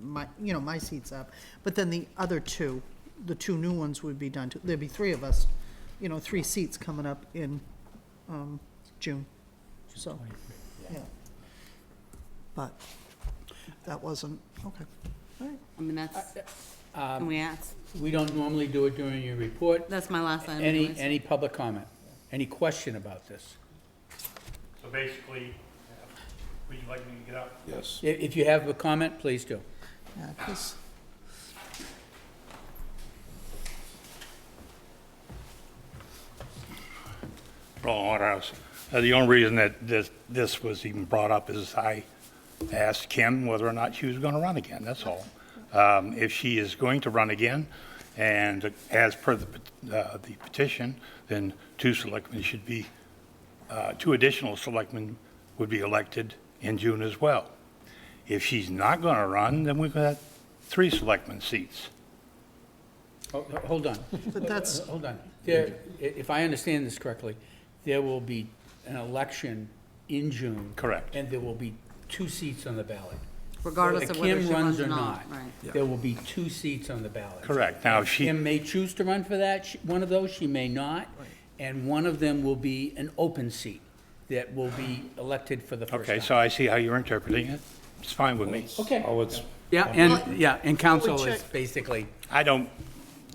my, you know, my seat's up. But then the other two, the two new ones would be done, too. there'd be three of us, you know, three seats coming up in um, June, so, yeah. But that wasn't, okay, all right. I mean, that's, can we ask? Um, We don't normally do it during your report. That's my last item. Any, anyways. any public comment? Any question about this? So basically, uh, would you like me to get up? Yes. I- If you have a comment, please do. Yeah, 'cause- Roland Waterhouse. Uh, The only reason that this, this was even brought up is I asked Kim whether or not she was going to run again, that's all. Um, If she is going to run again, and as per the pet- uh, the petition, then two selectmen should be, uh, two additional selectmen would be elected in June as well. If she's not going to run, then we've got three selectmen seats. Oh, Ho- ho- Hold on. But that's- Ho- Hold on. There, i- if I understand this correctly, there will be an election in June. Correct. And there will be two seats on the ballot. Regardless of whether she runs or not, right. There will be two seats on the ballot. Correct. Now, if she- Kim may choose to run for that, she- one of those, she may not. And one of them will be an open seat that will be elected for the first time. Okay, so I see how you're interpreting it. It's fine with me. Okay. Oh, it's, Yeah, and, yeah, and council Well, is check. basically, I don't,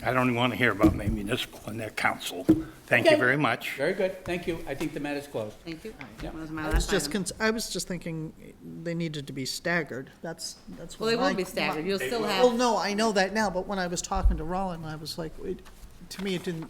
I don't even want to hear about my municipal and their council. Thank you Okay. very much. very good, thank you, I think the matter's closed. Thank you. Yeah. That was my I was last just, item. cons- I was just thinking they needed to be staggered, that's, that's what Well, they my- will be my- staggered. You'll still Well, have, no, I know that now, but when I was talking to Roland, I was like, it, to me, it didn't,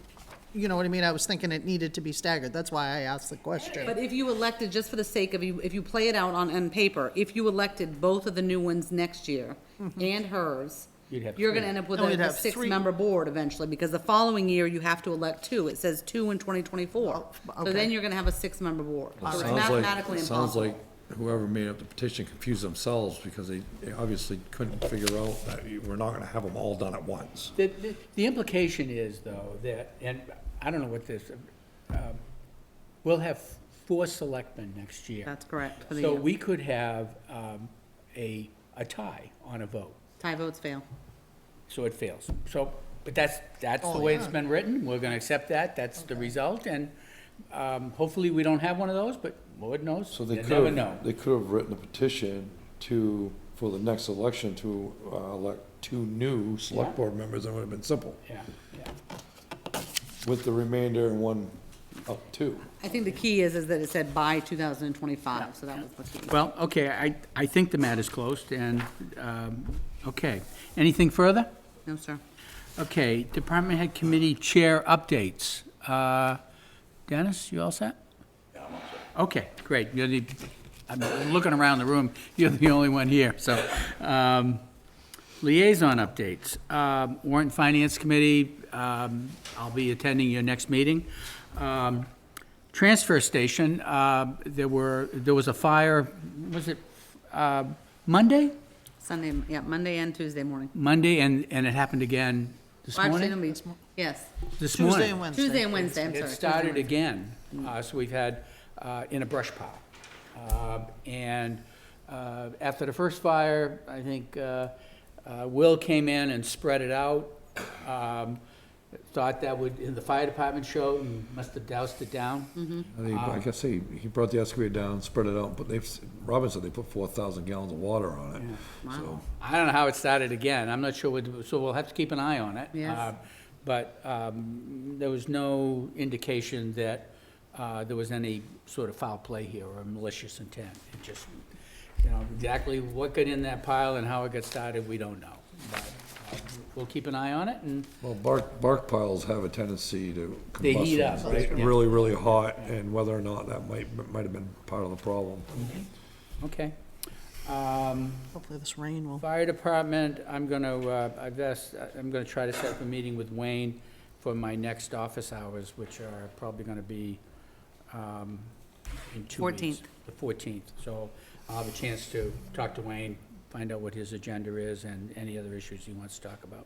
you know what I mean? I was thinking it needed to be staggered. That's why I asked the question. but if you elected, just for the sake of you, if you play it out on, on paper, if you elected both of the new ones next year and hers, You'd have you're gonna three. end up with Mm-hmm. No, a you'd a have three. six-member board eventually, because the following year, you have to elect two. It says two in twenty twenty-four. Oh, So then okay. you're gonna have a six-member board. All It's right. sounds like, mathematically it sounds impossible. like whoever made up the petition confused themselves because they they obviously couldn't figure out that you- we're not gonna have them all done at once. The, the- the implication is, though, that, and I don't know what this, um, we'll have four selectmen next year. That's correct. for the So year. we could have um, a, a tie on a vote, Tie votes fail. so it fails. So, but that's, that's the Oh, way it's yeah. been written, we're gonna accept that, that's the result, and um, hopefully we don't have one of those, but Lord knows, So you they could never have, know. they could have written a petition to, for the next election to uh, elect two new Yeah. select board members, that would have been simple, Yeah, yeah. with the remainder and one up two. I think the key is, is that it said by 2025, so that was the key. Well, okay, I, I think the matter's closed, and, um, okay. Anything further? No, sir. Okay, Department Head Committee Chair updates. Uh, Dennis, you all set? Okay, great. You're the, I'm looking around the room, you're the only one here, so. um, Liaison updates. Um, Warrant and Finance Committee, um, I'll be attending your next meeting. Um, Transfer station, uh, there were, there was a fire, was it uh, Monday? Sunday, yeah, Monday and Tuesday morning. Monday, and, and it happened again this Well, actually, morning? it'll be- Yes, This morning. Tuesday and Wednesday. Tuesday and Wednesday, I'm sorry. Mm. It Tuesday and started Wednesday. again, uh, so we've had, uh, in a brush pile. Uh, And uh, after the first fire, I think uh, uh, Will came in and spread it out. um, Thought that would, in the fire department show, and must have doused it Mm-hmm. down. I think, like I say, he brought the excavator down, spread it out, but they've, s- Robin said they put four thousand gallons of water on it, so. I don't know how it started again, I'm not sure, what- so we'll have to keep an eye on it. Yes. Uh, But um, there was no indication that uh, there was any sort of foul play here or malicious intent. It just, you know, exactly what got in that pile and how it got started, we don't know. But uh, We'll keep an eye on it, and Well, bark, bark piles have a tendency to combust. They heat when up, they get right? Yeah. Really, really hot, and whether or not that might, might have been part of the problem. okay. Um, Hopefully this rain will. Fire department, I'm gonna, uh, I guess, I'm gonna try to set up a meeting with Wayne for my next office hours, which are probably gonna be, um, in two weeks. 14th. The fourteenth, so I'll have a chance to talk to Wayne, find out what his agenda is and any other issues he wants to talk about.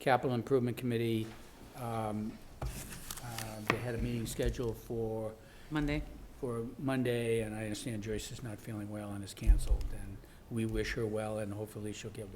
Capital Improvement Committee, um, uh, they had a meeting scheduled for Monday. for Monday, and I understand Joyce is not feeling well and is canceled, and we wish her well, and hopefully she'll get well.